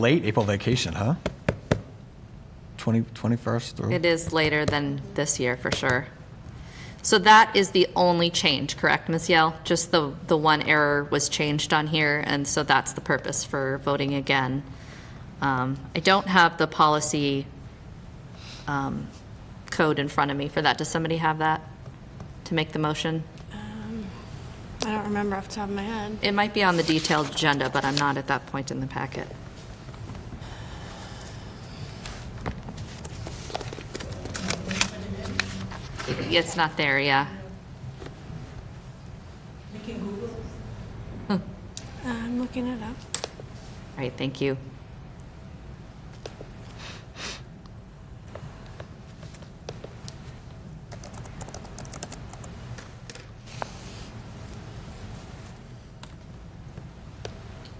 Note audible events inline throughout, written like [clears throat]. Late April vacation, huh? 20, 21st or? It is later than this year, for sure. So that is the only change, correct, Ms. Yell? Just the, the one error was changed on here, and so that's the purpose for voting again. Um, I don't have the policy um, code in front of me for that. Does somebody have that to make the motion? I don't remember off the top of my head. It might be on the detailed agenda, but I'm not at that point in the packet. It's not there, yeah. I'm looking it up. All right, thank you.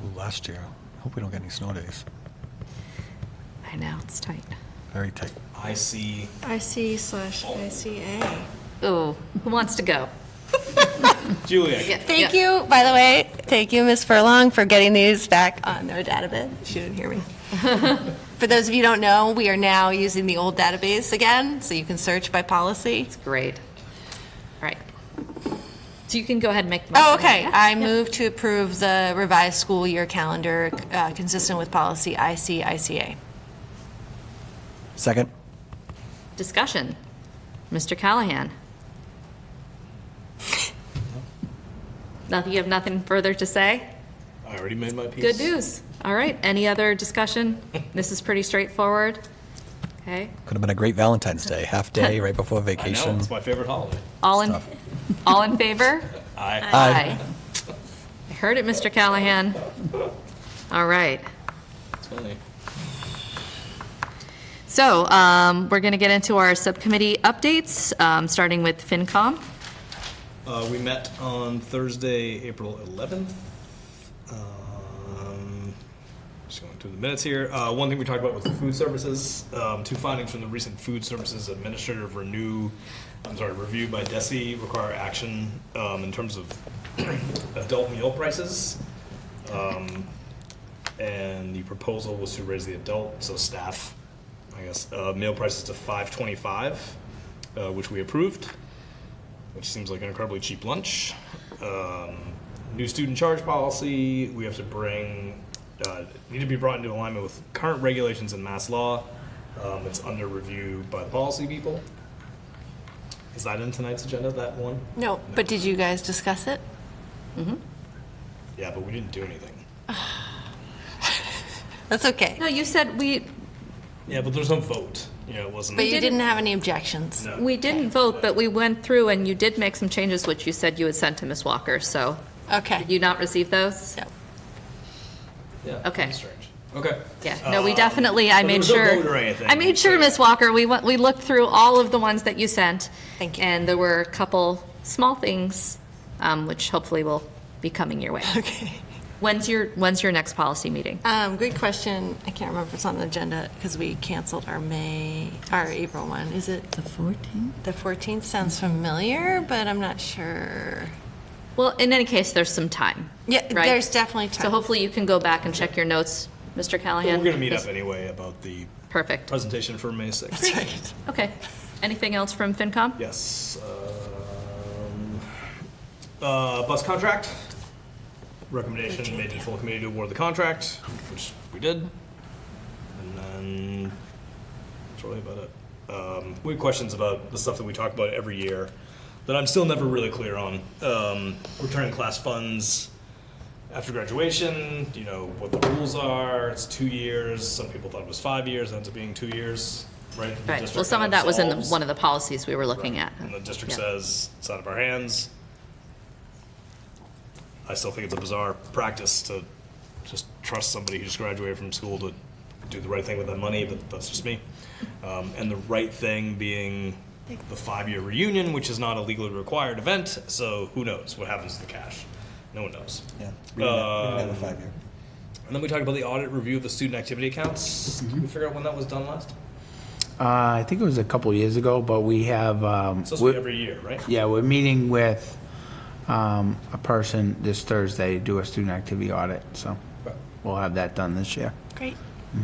Ooh, Last year. Hope we don't get any snow days. I know, it's tight. Very tight. I see. IC slash ICA. Oh, who wants to go? Julia, Yeah, Thank yeah. you, by the way. Thank you, Ms. Furlong, for getting these back on their database. She didn't hear [laughs] me. For those of you who don't know, we are now using the old database again, so you can search by policy. Great. All right. So you can go ahead and make. the Oh, motion. okay. Yeah. I move to approve the revised school year calendar uh, consistent with policy ICICA. Second? Discussion. Mr. Callahan? Nothing, you have nothing further to say? I already made my piece. Good news. All right, any [laughs] other discussion? This is pretty straightforward. Okay, Could have been a great Valentine's Day, half [laughs] day right before I vacation. know, it's my favorite holiday. all in, Stuff. [laughs] all in favor? I, Aye. I heard it, Mr. Callahan. All right. it's funny. So um, we're going to get into our subcommittee updates, um, starting with FinCom. Uh, we met on Thursday, April 11th. Um, just going through the minutes here. Uh, one thing we talked about was the food services. Um, two findings from the recent food services administrative renew, I'm sorry, review by DESI require action um, in terms of [clears throat] adult meal prices. Um, and the proposal was to raise the adult, so staff, I guess, uh, meal prices to 525, uh, which we approved which seems like an incredibly cheap lunch. Um, new student charge policy. We have to bring uh, need to be brought into alignment with current regulations and mass law. Um, it's under review by the policy people. Is that in tonight's agenda? That one? No, but did you guys discuss it? Yeah, but we didn't do anything. That's okay. No, you said we, Yeah, but there's no vote. You know, it wasn't. But you didn't- didn't have any objections? No. we didn't vote, but we went through and you did make some changes, which you said you had sent to Ms. Walker, so Okay. did you not receive those? No. yeah, okay. that's Strange. Okay. Yeah, no, we Um, definitely, I but there made was no sure. vote or anything, I made sure, so- Ms. Walker, we went, we looked through all of the ones that you sent. Thank you. And there were a couple small things, um, which hopefully will be coming your way. [laughs] Okay. When's your, when's your next policy meeting? Um, great question. I can't remember if it's on the agenda because we canceled our May, our April one. Is it? The 14th? The 14th sounds familiar, but I'm not sure. Well, in any case, there's some time. Yeah, right? there's definitely time. So hopefully you can go back and check your notes, Mr. We're Callahan. gonna meet up anyway about the Perfect. presentation for May 6th. That's right. Okay. Anything else from FinCom? Yes. um, uh, Bus contract. Recommendation made to the full committee to award the contract, which we did. And then, that's really about it. Um, We had questions about the stuff that we talk about every year that I'm still never really clear on. Um, Returning class funds after graduation, you know, what the rules are. It's two years. Some people thought it was five years, ends up being two years, right? The Right. Well, district some of kind that was in the, solves. one of the policies we were looking at. And the district Yeah. says, it's out of our hands. I still think it's a bizarre practice to just trust somebody who just graduated from school to do the right thing with that money, but that's just me. Um, and the right thing being the five-year reunion, which is not a legally required event, so who knows what happens to the cash? No one knows. Yeah. We didn't have- we didn't have a five-year. And then we talked about the audit review of the student activity accounts. Can we figure out when that was done last? Uh, I think it was a couple years ago, but we have, um, It's supposed to we're- be every year, right? yeah, we're meeting with um, a person this Thursday to do a student activity audit, so we'll have that done this year. Great.